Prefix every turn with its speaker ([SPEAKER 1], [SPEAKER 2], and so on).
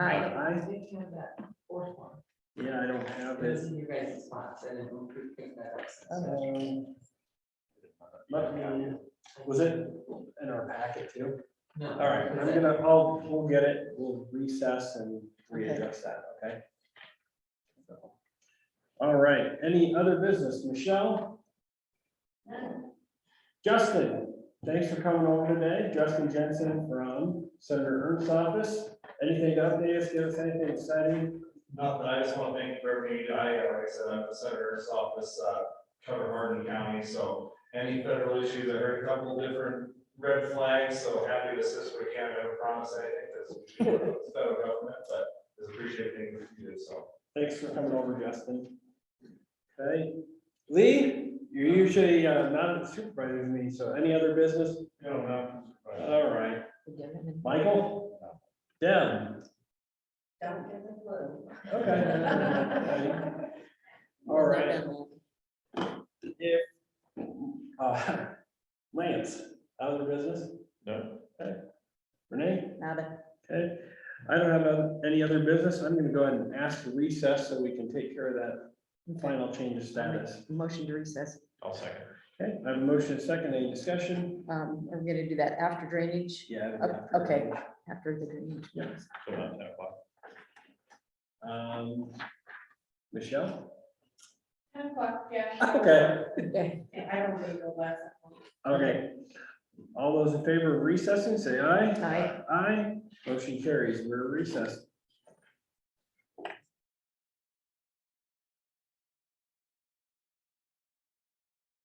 [SPEAKER 1] I,
[SPEAKER 2] We can have that fourth one.
[SPEAKER 1] yeah, I don't have
[SPEAKER 2] It's
[SPEAKER 1] it.
[SPEAKER 2] in your guys' spots and it will pre- pick that up.
[SPEAKER 1] Um, Let me, was it in our packet too?
[SPEAKER 2] No.
[SPEAKER 1] All right, I'm gonna, I'll, we'll get it, we'll recess and readdress that, okay? So, All right, any other business, Michelle? Justin, thanks for coming over today, Justin Jensen from Senator Ernst's office, anything to update us, give us anything exciting?
[SPEAKER 3] No, but I just want to thank Brittany, you do. I, uh, like I said, I'm the senator's office, uh, cover Hardin County, so any federal issues, I heard a couple of different red flags, so happy to assist where we can, I don't promise anything, because we do work with the federal government, but just appreciate things you do, so.
[SPEAKER 1] Thanks for coming over, Justin. Okay, Lee, you're usually uh, not at the supervisor's meeting, so any other business?
[SPEAKER 3] You don't know.
[SPEAKER 1] All right.
[SPEAKER 2] Don't
[SPEAKER 1] Michael? Deb?
[SPEAKER 2] give the clue.
[SPEAKER 1] Okay. All right. If, uh, Lance, out of the business?
[SPEAKER 3] No.
[SPEAKER 1] Okay. Renee?
[SPEAKER 4] Nada.
[SPEAKER 1] Okay. I don't have uh, any other business. I'm gonna go ahead and ask for recess so we can take care of that final change of status.
[SPEAKER 4] Motion to recess.
[SPEAKER 3] I'll second.
[SPEAKER 1] Okay, I have a motion and second. Any discussion?
[SPEAKER 4] Um, we're gonna do that after drainage,
[SPEAKER 1] Yeah.
[SPEAKER 4] Oh, okay. after the drainage.
[SPEAKER 1] Yeah.
[SPEAKER 3] uh,
[SPEAKER 1] Um, Michelle?
[SPEAKER 5] Ten o'clock, yeah.
[SPEAKER 1] Okay.
[SPEAKER 4] Okay.
[SPEAKER 5] I don't really know last.
[SPEAKER 1] Okay. All those in favor of recessing, say aye.
[SPEAKER 4] Aye.
[SPEAKER 1] Aye, motion carries, we're recessed.